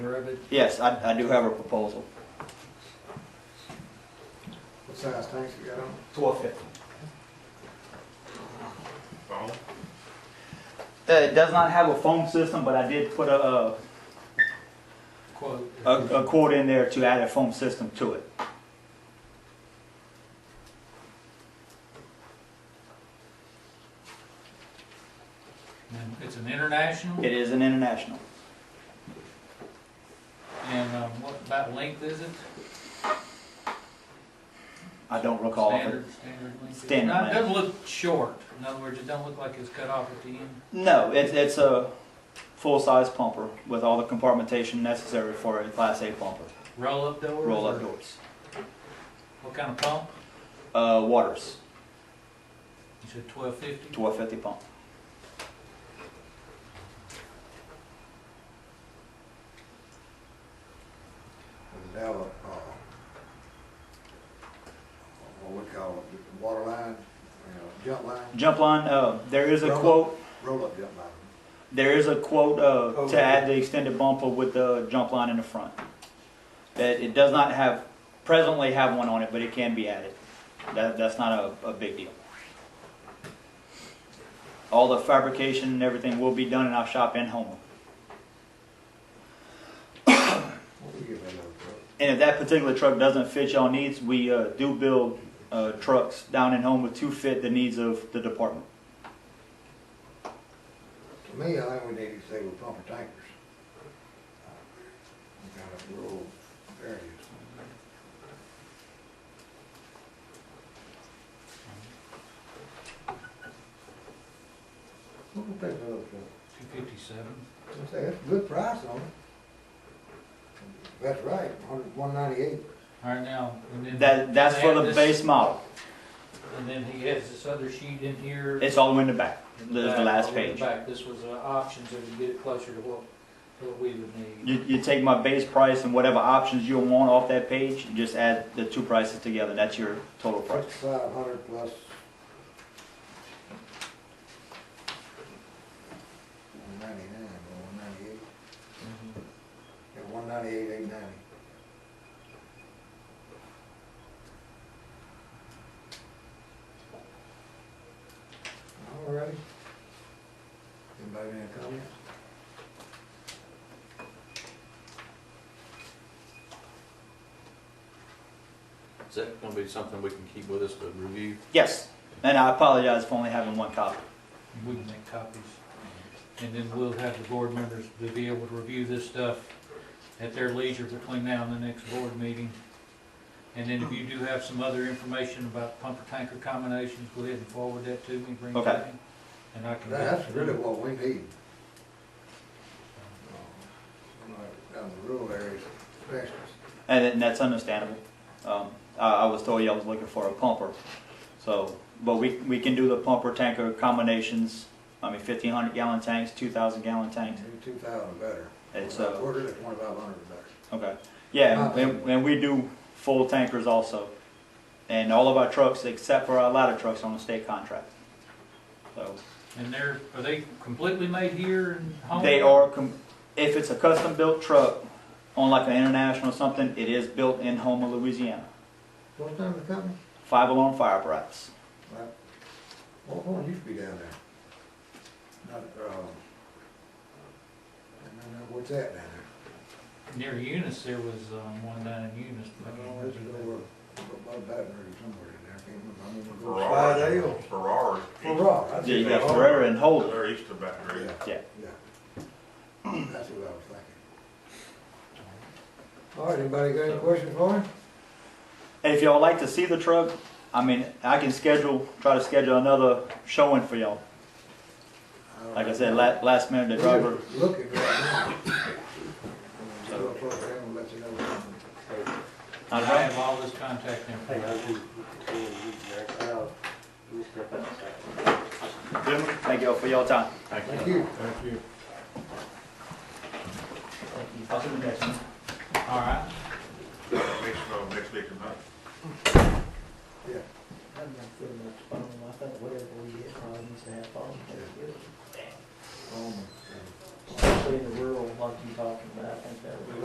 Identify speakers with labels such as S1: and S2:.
S1: corner of it?
S2: Yes, I, I do have a proposal.
S3: What size tanks you got on?
S2: Twelve fifty.
S4: Phone?
S2: Uh, it does not have a phone system, but I did put a, uh,
S1: Quote.
S2: a, a quote in there to add a phone system to it.
S1: And It's an international,
S2: It is an international.
S1: and um, what about length is it?
S2: I don't recall. if it-
S1: Standard, standard length. is it?
S2: Standard
S1: Now, It
S2: length.
S1: doesn't look short, in other words, it doesn't look like it's cut off at the end.
S2: No, it's, it's a full-size pumper with all the compartmentation necessary for a Class A pumper.
S1: Roll-up doors?
S2: Roll-up
S1: or
S2: doors.
S1: What kind of pump?
S2: Uh, Waters,
S1: You said twelve fifty?
S2: twelve fifty pump.
S3: Does it have a, uh, what we call it, water line, you know, jump line,
S2: Jump line, uh, there is a
S3: Roll-up.
S2: quote,
S3: roll-up jump line?
S2: there is a quote, uh,
S3: Oh,
S2: to add the extended bumper with the jump line in the front. That it does not have, presently have one on it, but it can be added. That, that's not a, a big deal. All the fabrication and everything will be done in our shop in Homer.
S3: What we give that other truck?
S2: And if that particular truck doesn't fit y'all needs, we uh, do build uh, trucks down in Homer to fit the needs of the department.
S3: To me, I think we need to say we're pumping tankers. uh, We got a rural areas. What we pay for those trucks?
S1: Two fifty-seven.
S3: I say, that's a good price on it. That's right, hundred, one ninety-eight.
S1: All right, now, and then.
S2: That, that's for
S1: and
S2: the
S1: this-
S2: base model.
S1: And then he has this other sheet in here.
S2: It's all the way in the back.
S1: in
S2: There's the
S1: back,
S2: last
S1: over in the
S2: page.
S1: Back, this was uh, options, that would get it closer to what, what we would need.
S2: You, you take my base price and whatever options you want off that page, you just add the two prices together. That's your total price.
S3: Sixty-five hundred plus. One ninety-nine, or one ninety-eight,
S2: Mm-hmm.
S3: yeah, one ninety-eight, eight ninety. All right. Anybody have any comments?
S4: Is that gonna be something we can keep with us to review?
S2: Yes. And I apologize for only having one copy.
S1: We can make copies. And then we'll have the board members to be able to review this stuff at their leisure between now and the next board meeting. And then if you do have some other information about pumper tanker combinations, go ahead and forward that to me, bring it to
S2: Okay.
S1: me. And I can.
S3: That's really what we need. Like, Down the rural areas, especially.
S2: And then that's understandable. Um, I, I was told y'all was looking for a pumper. So, but we, we can do the pumper tanker combinations. I mean, fifteen hundred gallon tanks, two thousand gallon tanks.
S3: Two thousand better.
S2: It's,
S3: Or
S2: uh,
S3: Quarter to twenty-five hundred better.
S2: okay. Yeah, and, and we do full tankers also. And all of our trucks, except for our ladder trucks, are on a state contract. So,
S1: And they're, are they completely made here in Homer?
S2: They
S3: Oh.
S2: are, com- if it's a custom built truck, on like an international or something, it is built in Homer, Louisiana.
S3: What's the name of the company?
S2: Five alarm fire apparatus.
S3: Right. What one used to be down there? Not, um, I don't know, what's that down
S1: Near Eunice, there was um, one down in Eunice. but I
S3: there?
S1: can't remember
S3: Oh, this
S1: the
S3: is
S1: name.
S3: over, above Baton Rouge somewhere in there, I can't remember. I'm gonna go
S4: Ferrara.
S3: Slide Hill.
S4: Ferrara.
S3: Ferrara, that's
S2: Yeah, you
S3: it. Oh.
S2: got Ferrera and Holden.
S4: They're east of Baton Rouge.
S2: Yeah.
S3: Yeah. That's what I was thinking. All right, anybody got any questions for me?
S2: And if y'all like to see the truck, I mean, I can schedule, try to schedule another showing for y'all. Like I said, la- last minute, the driver,
S3: Looking right now. I'm gonna go across there and let you know what
S1: I
S2: All right.
S1: have all this contact
S5: Hey,
S1: information.
S5: I was in, in, Jack, uh, Mr. Outside.
S2: Gentlemen, thank y'all for y'all time.
S3: I'm- Thank you.
S2: I'll see you next time.
S1: All right.
S4: Next, uh, next week tonight.
S3: Yeah.
S6: I'm not feeling much phone, I think whatever we get, probably needs to have phone, that's good.
S3: Um,
S6: Especially in the rural, like you talking about, I think that would be.